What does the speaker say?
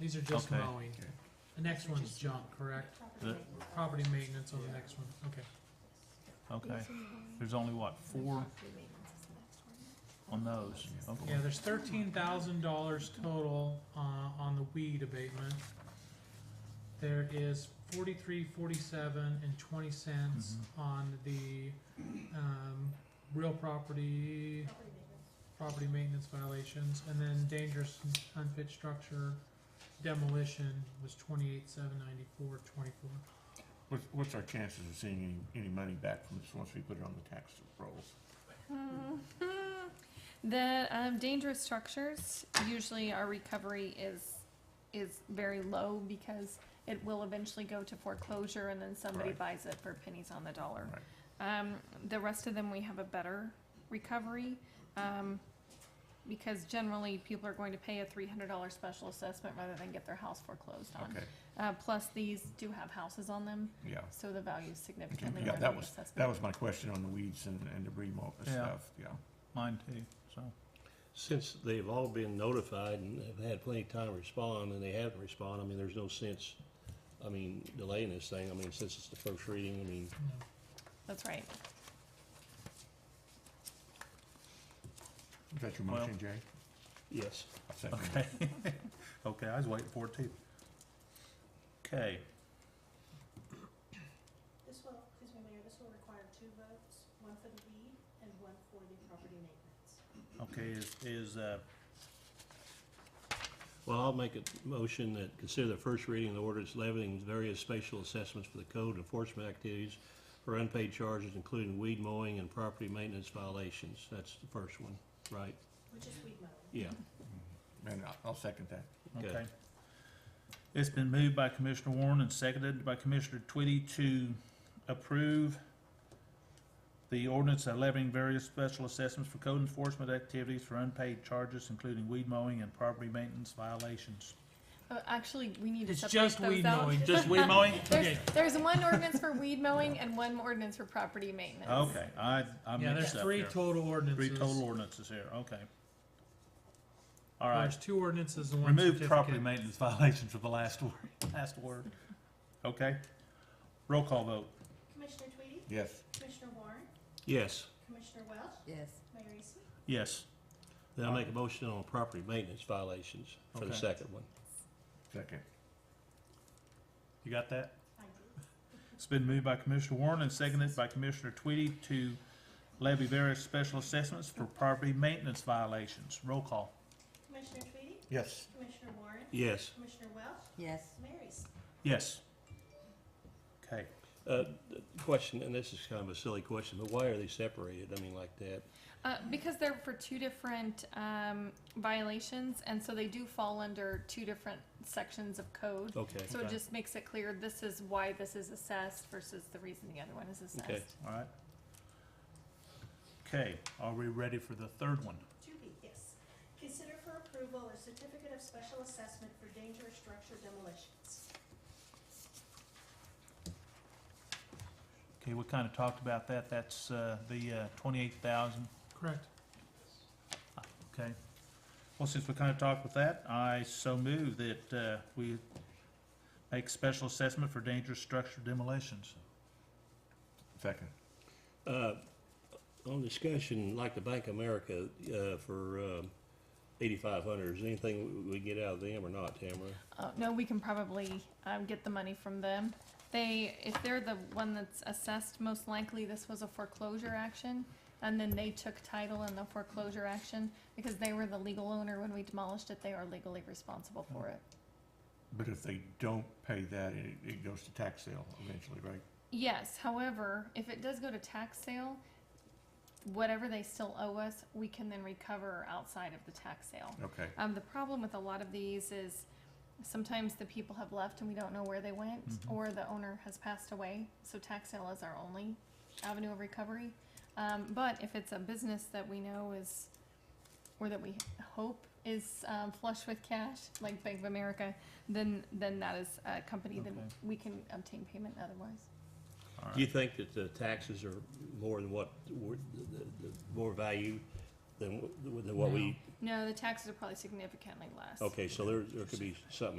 These are just Okay. mowing. The next one's junk, correct? The- Property maintenance on the next one, okay. Okay, there's only what, four on those? Okay. Yeah, there's thirteen thousand dollars total, uh, on the weed abatement. There is forty-three, forty-seven and twenty cents on the, um, real property, property maintenance violations, and then dangerous and unfit structure demolition was twenty-eight, seven ninety-four, twenty-four. What's, what's our chances of seeing any, any money back from this once we put it on the tax rolls? Mhm. The um, dangerous structures, usually our recovery is, is very low because it will eventually go to foreclosure and then somebody Right. buys it for pennies on the dollar. Um, the rest of them, we have a better recovery, um, because generally people are going to pay a three hundred dollar special assessment rather than get their house foreclosed on. Okay, Uh, plus these do have houses on them, yeah. so the value is Okay, significantly Yeah, lower that than the was, assessment. that was my question on the weeds and, and debris mop and Yeah. stuff, yeah. Mine too, so. Since they've all been notified and have had plenty of time to respond, and they haven't responded, I mean, there's no sense, I mean, delaying this thing, I mean, since it's the first reading, I mean, No. That's right. Is that your Well- motion, Jay? yes. I'll second it. Okay. Okay, I was waiting for it too. Okay, This will, excuse me, Mayor, this will require two votes, one for the weed and one for the property maintenance. okay, is, is, uh, Well, I'll make a motion that consider the first reading of the ordinance levying various spatial assessments for the code enforcement activities for unpaid charges, including weed mowing and property maintenance violations, that's the first one, right? Which is weed mowing. Yeah, And I'll, I'll second that. Okay. okay. It's been moved by Commissioner Warren and seconded by Commissioner Twitty to approve the ordinance levying various special assessments for code enforcement activities for unpaid charges, including weed mowing and property maintenance violations. Uh, Actually, we need to It's separate just those weed out. mowing. Just weed mowing? There's, there's one ordinance for weed mowing and one ordinance for property maintenance. Okay, I, I Yeah, mixed there's up three here. total ordinances. Three total ordinances here, okay. All right, There's two ordinances and one remove certificate. property maintenance violations for the last word, last word. Okay, roll call vote, Commissioner Tweedy, Yes, Commissioner Warren, yes. Commissioner Welch, Yes. Mayor Eastman. yes. Then I'll make a motion on property maintenance violations for the Okay. second one. second. You got that? I do. It's been moved by Commissioner Warren and seconded by Commissioner Tweedy to levy various special assessments for property maintenance violations. Roll call. Commissioner Tweedy, Yes, Commissioner Warren, Yes. Commissioner Welch, Yes. Mayor Eastman. Yes. Okay, Uh, the Question, and this is kind of a silly question, but why are they separated? I mean, like that? Uh, because they're for two different, um, violations, and so they do fall under two different sections of code. Okay, So it Okay. just makes it clear this is why this is assessed versus the reason the other one is Okay. assessed. all right. Okay, are we ready for the third one? To be, yes. Consider for approval a certificate of special assessment for dangerous structure demolitions. Okay, we kind of talked about that. That's, uh, the, uh, twenty-eight thousand, Correct. okay? Well, since we kind of talked with that, I so move that, uh, we make special assessment for dangerous structure demolitions. second. Uh, On discussion, like the Bank of America uh, for eighty-five hundred, is anything we- we get out of them or not, Tamara? Oh, no, we can probably, um, get the money from them. They, if they're the one that's assessed, most likely this was a foreclosure action, and then they took title in the foreclosure action, because they were the legal owner when we demolished it, they are legally responsible for it. But if they don't pay that, it, it goes to tax sale eventually, right? Yes, however, if it does go to tax sale, whatever they still owe us, we can then recover outside of the tax sale. Okay, Um, the problem with a lot of these is sometimes the people have left and we don't know where they went, Mhm. or the owner has passed away, so tax sale is our only avenue of recovery. Um, but if it's a business that we know is, or that we hope is um, flush with cash, like Bank of America, then then that is a company Okay. that we can obtain payment otherwise. All Do you right. think that the taxes are more than what, were- the- the- the- more value than wh- than what we? No, the taxes are probably significantly less. Okay, so there there could be something